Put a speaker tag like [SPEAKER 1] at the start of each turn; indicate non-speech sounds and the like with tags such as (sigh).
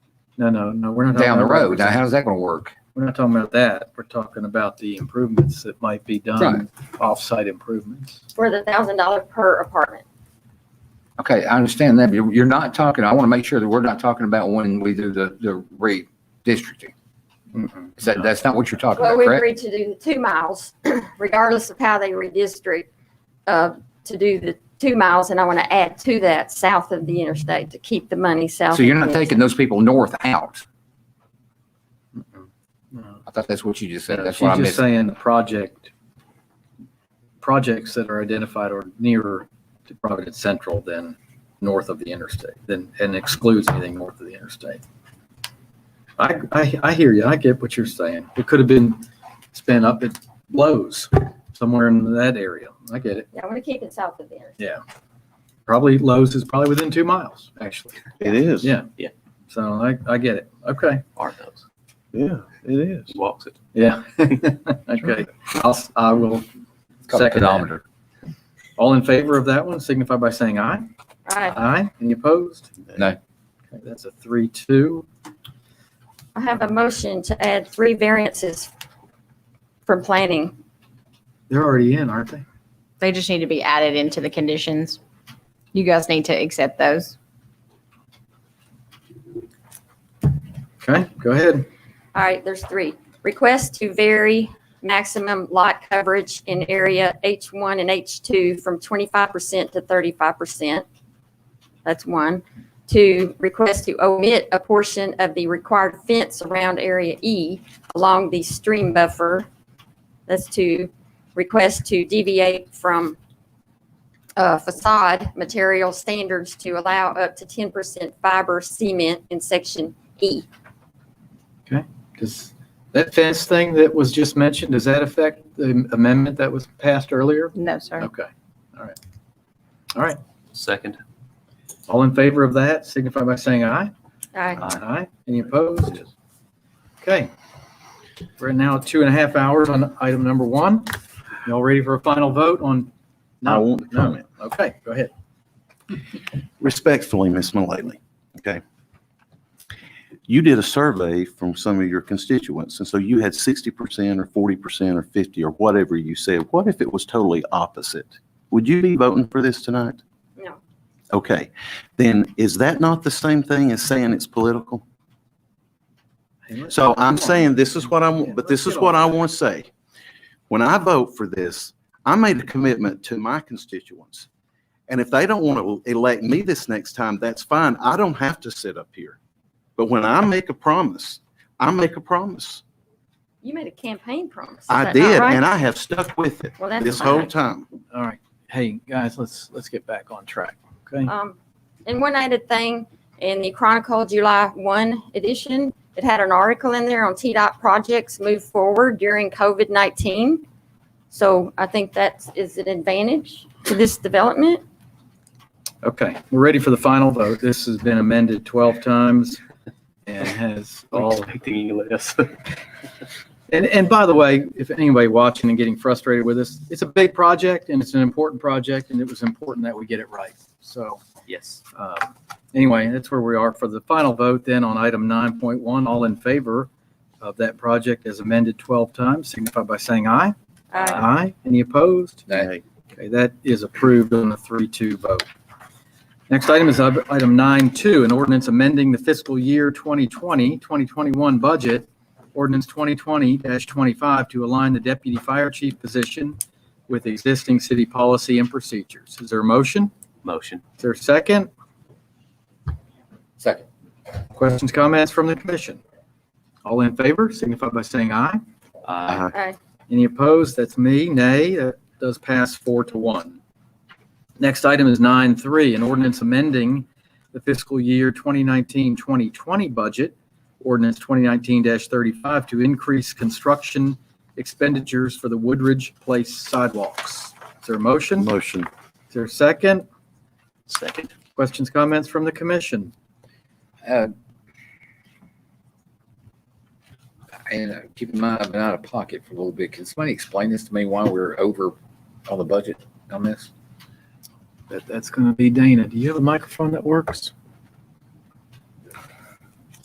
[SPEAKER 1] No, no, no, we're not. talking
[SPEAKER 2] down the
[SPEAKER 1] about
[SPEAKER 2] road. Now,
[SPEAKER 1] roads.
[SPEAKER 2] how's that going to work?
[SPEAKER 1] We're not talking about that. We're talking about the improvements that might be done, off-site improvements.
[SPEAKER 3] for the thousand dollar per apartment.
[SPEAKER 2] Okay, I understand that, but you're you're not talking, I want to make sure that we're not talking about when we do the, the redistricting.
[SPEAKER 1] Mm-mm.
[SPEAKER 2] Is that, that's not what you're talking
[SPEAKER 3] Well,
[SPEAKER 2] about,
[SPEAKER 3] we
[SPEAKER 2] correct?
[SPEAKER 3] agreed to do the two miles, (clears throat) regardless of how they redistrict, uh, to do the two miles, and I want to add to that, south of the interstate, to keep the money south.
[SPEAKER 2] So you're
[SPEAKER 3] of
[SPEAKER 2] not
[SPEAKER 3] the
[SPEAKER 2] taking those people north out.
[SPEAKER 1] No.
[SPEAKER 2] I thought that's what you just said. That's what I
[SPEAKER 1] Uh, She's just
[SPEAKER 2] missed.
[SPEAKER 1] saying the project, projects that are identified are nearer to Providence Central than north of the interstate, than, and excludes anything north of the interstate. I, I, I hear you. I get what you're saying. It could have been spent up at Lowe's, somewhere in that area. I get it.
[SPEAKER 3] interstate. Yeah, I want to keep it south of the interstate.
[SPEAKER 1] Probably Lowe's is probably within two miles, actually.
[SPEAKER 4] It is.
[SPEAKER 1] Yeah.
[SPEAKER 5] Yeah.
[SPEAKER 1] So I, I get it. Okay.
[SPEAKER 5] Art knows.
[SPEAKER 4] Yeah, it is.
[SPEAKER 5] He walks it.
[SPEAKER 1] Yeah. (laughs) Okay. I'll, s- I will
[SPEAKER 2] It's called a
[SPEAKER 1] second that.
[SPEAKER 2] pedometer.
[SPEAKER 1] All in favor of that one, signify by saying aye.
[SPEAKER 3] Right.
[SPEAKER 1] Aye. Any opposed?
[SPEAKER 2] No.
[SPEAKER 1] Okay, That's a three, two.
[SPEAKER 3] I have a motion to add three variances from planning.
[SPEAKER 1] They're already in, aren't they?
[SPEAKER 6] They just need to be added into the conditions. You guys need to accept those.
[SPEAKER 1] Okay, go ahead.
[SPEAKER 3] All right, there's three. Request to vary maximum lot coverage in area H1 and H2 from 25% to 35%. That's one. To request to omit a portion of the required fence around area E along the stream buffer. That's two. Request to deviate from uh, facade material standards to allow up to 10% fiber cement in section E.
[SPEAKER 1] Does that fence thing that was just mentioned, does that affect the amendment that was passed earlier?
[SPEAKER 6] No, sir.
[SPEAKER 1] Okay.
[SPEAKER 5] Second.
[SPEAKER 1] All in favor of that, signify by saying aye.
[SPEAKER 3] All right,
[SPEAKER 1] Aye. Any opposed? Okay. We're now at two and a half hours on item number one. Y'all ready for a final vote on?
[SPEAKER 4] I won't
[SPEAKER 1] No.
[SPEAKER 4] comment.
[SPEAKER 1] Okay, go ahead.
[SPEAKER 4] Respectfully, Miss Mullally, okay? You did a survey from some of your constituents, and so you had sixty percent or forty percent or fifty or whatever you said. What if it was totally opposite? Would you be voting for this tonight?
[SPEAKER 3] no.
[SPEAKER 4] Okay, then is that not the same thing as saying it's political? So I'm saying this is what I, am but this is what I want to say. When I vote for this, I made a commitment to my constituents. And if they don't want to elect me this next time, that's fine. I don't have to sit up here. But when I make a promise, I make a promise.
[SPEAKER 3] You made a campaign promise. Is
[SPEAKER 4] I
[SPEAKER 3] that not
[SPEAKER 4] did,
[SPEAKER 3] right?
[SPEAKER 4] and I have stuck with it
[SPEAKER 3] Well, that's
[SPEAKER 4] this whole
[SPEAKER 3] fine.
[SPEAKER 4] time.
[SPEAKER 1] All right. Hey, guys, let's, let's get back on track. Okay.
[SPEAKER 4] Uh-huh.
[SPEAKER 3] Um, and one added thing, in the Chronicle July one edition, it had an article in there on T-Dot projects move forward during COVID-19. So I think that is an advantage to this development.
[SPEAKER 1] Okay, we're ready for the final vote. This has been amended 12 times
[SPEAKER 4] (laughs)
[SPEAKER 1] and has all,
[SPEAKER 5] Expecting you less.
[SPEAKER 1] and, and by the way, if anybody watching and getting frustrated with this, it's a big project and it's an important project and it was important that we get it right. So
[SPEAKER 5] yes.
[SPEAKER 1] um, anyway, that's where we are for the final vote then on item 9.1. All in favor of that project as amended 12 times, signify by saying aye.
[SPEAKER 3] Uh,
[SPEAKER 1] Aye. Any opposed?
[SPEAKER 2] Aye.
[SPEAKER 4] Hey,
[SPEAKER 1] Okay, that is approved on a three-two vote. Next item is ob- item nine-two, an ordinance amending the fiscal year 2020, 2021 budget, ordinance 2020-25 to align the deputy fire chief position with existing city policy and procedures. Is there a motion?
[SPEAKER 5] Motion.
[SPEAKER 1] Is there a second?
[SPEAKER 2] Second.
[SPEAKER 1] Questions, comments from the commission? All in favor, signify by saying aye.
[SPEAKER 5] Aye.
[SPEAKER 3] uh,
[SPEAKER 1] Any opposed? That's me. Nay, that does pass four to one. Next item is nine three, an ordinance amending the fiscal year 2019-2020 budget, ordinance 2019-35 to increase construction expenditures for the Woodridge Place sidewalks. Is there a motion? Is
[SPEAKER 4] Motion.
[SPEAKER 1] there a second?
[SPEAKER 5] Second.
[SPEAKER 1] Questions, comments from the commission?
[SPEAKER 2] Uh, And uh, keep in mind, I've been out of pocket for a little bit. Can somebody explain this to me why we're over on the budget on this?
[SPEAKER 1] That, that's going to be Dana. Do you have a microphone that works?